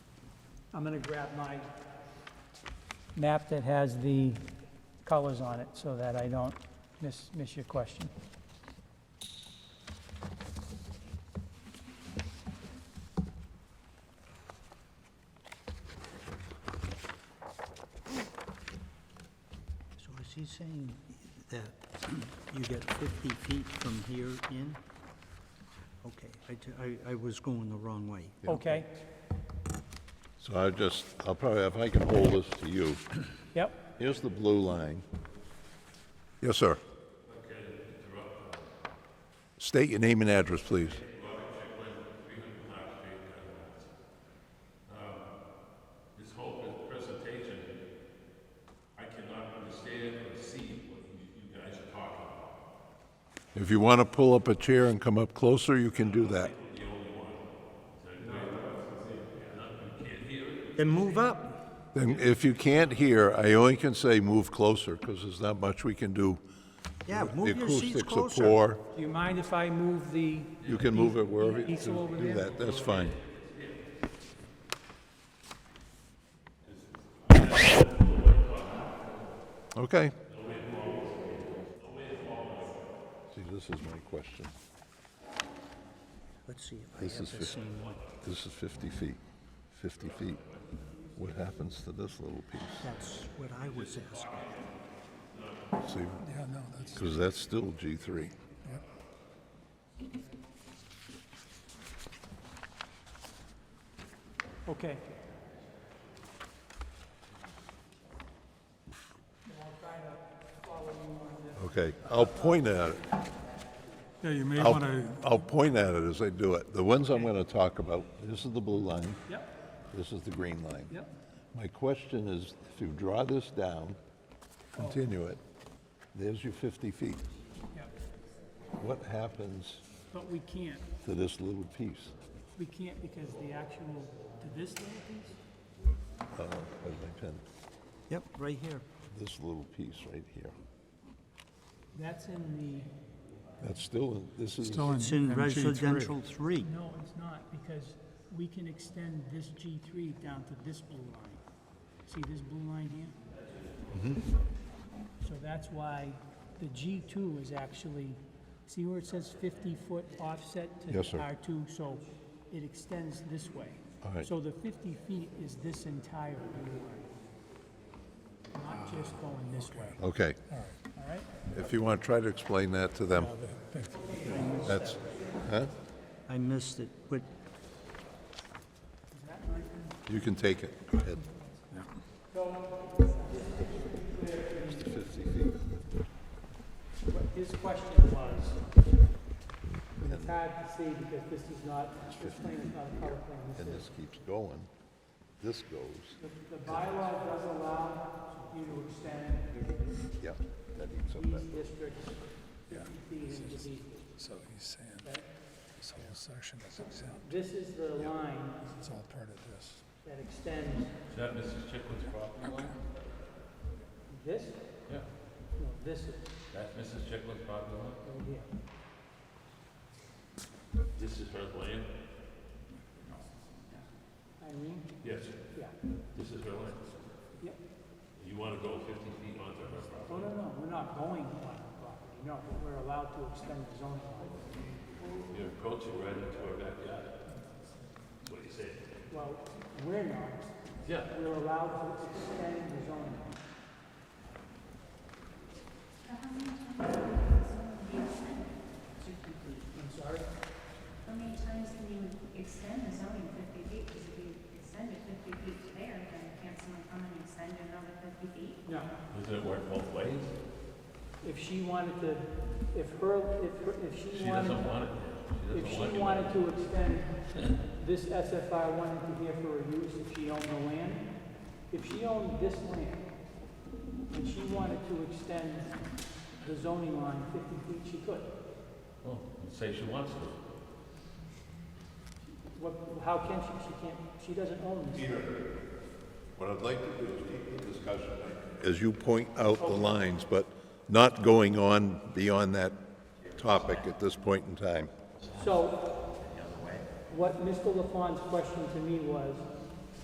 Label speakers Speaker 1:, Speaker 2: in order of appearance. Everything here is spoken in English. Speaker 1: I'm gonna grab my map that has the colors on it so that I don't miss, miss your question.
Speaker 2: So is he saying that you get 50 feet from here in? Okay, I t- I, I was going the wrong way.
Speaker 1: Okay?
Speaker 3: So I just, I'll probably, if I can hold this to you,
Speaker 1: Yep,
Speaker 3: here's the blue line. Yes, sir. State your name and address, please.
Speaker 4: This whole presentation, I cannot understand or see what you you guys are talking about.
Speaker 3: If you want to pull up a chair and come up closer, you can do that.
Speaker 2: Then move up.
Speaker 3: Then if you can't hear, I only can say move closer, because there's not much we can do.
Speaker 2: Yeah,
Speaker 3: The
Speaker 2: move your seats
Speaker 3: acoustics are
Speaker 2: closer.
Speaker 3: poor.
Speaker 1: do you mind if I move the,
Speaker 3: You can move it wherever you
Speaker 1: Easel over
Speaker 3: do
Speaker 1: there?
Speaker 3: that, that's fine. Okay. See, this is my question.
Speaker 2: Let's see if I
Speaker 3: This is
Speaker 2: have the
Speaker 3: 50,
Speaker 2: same one.
Speaker 3: this is 50 feet, 50 feet. What happens to this little piece?
Speaker 2: That's what I was asking.
Speaker 3: See? Yeah, no, that's. Because that's still G3.
Speaker 1: okay.
Speaker 3: Okay, I'll point at it.
Speaker 5: Yeah, you may want
Speaker 3: I'll,
Speaker 5: to,
Speaker 3: I'll point at it as I do it. The ones I'm going to talk about, this is the blue line,
Speaker 1: Yep,
Speaker 3: this is the green line.
Speaker 1: yep.
Speaker 3: My question is, if you draw this down, continue it, there's your 50 feet.
Speaker 1: Yep.
Speaker 3: What happens
Speaker 1: But we can't,
Speaker 3: to this little piece?
Speaker 1: we can't because the actual, to this little piece?
Speaker 3: Uh, Where's my pen?
Speaker 2: Yep, right here.
Speaker 3: This little piece right here.
Speaker 1: That's in
Speaker 3: That's still, in- this is,
Speaker 5: still in
Speaker 2: It's in
Speaker 5: MG3.
Speaker 2: residential three.
Speaker 1: the, no, it's not, because we can extend this G3 down to this blue line. See this blue line here?
Speaker 3: Mm-hmm.
Speaker 1: So that's why the G2 is actually, see where it says 50-foot offset to
Speaker 3: Yes, sir.
Speaker 1: R2? So it extends this way.
Speaker 3: All right.
Speaker 1: So the 50 feet is this entire blue line, not just going this way,
Speaker 3: okay.
Speaker 1: all right?
Speaker 3: If you want, try to explain that to them. That's, huh?
Speaker 2: I missed it. What,
Speaker 3: You can take it, go ahead. It's the 50 feet.
Speaker 1: His question was, and it's hard to see because this is not, this plane is not a color plane. This
Speaker 3: and
Speaker 1: is-
Speaker 3: this keeps going, this goes,
Speaker 1: The bylaw does allow you to extend
Speaker 3: yeah, that eats up
Speaker 1: these
Speaker 3: that.
Speaker 1: districts fifty feet into these.
Speaker 5: So he's saying this whole section is exempt,
Speaker 1: This is the line
Speaker 5: it's all part of this.
Speaker 1: that extends
Speaker 4: Is that Mrs. Chicklin's property line?
Speaker 1: this,
Speaker 4: Yeah.
Speaker 1: no, this is
Speaker 4: That's Mrs. Chicklin's property line?
Speaker 1: over here.
Speaker 4: This is her land?
Speaker 1: I mean,
Speaker 4: Yes.
Speaker 1: yeah,
Speaker 4: This is her land.
Speaker 1: yep.
Speaker 4: You want to go 50 feet onto her property?
Speaker 1: Oh, no, no, we're not going on the property, no, but we're allowed to extend the zoning line.
Speaker 4: You're approaching right into her backyard. That's what you said.
Speaker 1: Well, we're not,
Speaker 4: Yeah.
Speaker 1: we're allowed to extend the zoning line.
Speaker 6: How many times can you extend the zoning fifty feet? Because if you extend it fifty feet to there, then can't someone come and extend another fifty feet?
Speaker 1: No,
Speaker 4: Doesn't it work both ways?
Speaker 1: if she wanted to, if her, if, her- if she
Speaker 4: She doesn't
Speaker 1: wanted,
Speaker 4: want it.
Speaker 1: if
Speaker 4: doesn't want
Speaker 1: she
Speaker 4: you.
Speaker 1: wanted to extend this SFI one into here for her use, if she owned the land, if she owned this land, and she wanted to extend the zoning line fifty feet, she could.
Speaker 4: Oh, Say she wants to.
Speaker 1: What, how can she, she can't, she doesn't own this.
Speaker 3: What I'd like to do is keep the discussion. As you point out the lines, but not going on beyond that topic at this point in time.
Speaker 1: So, what Mr. LaFawn's question to me was,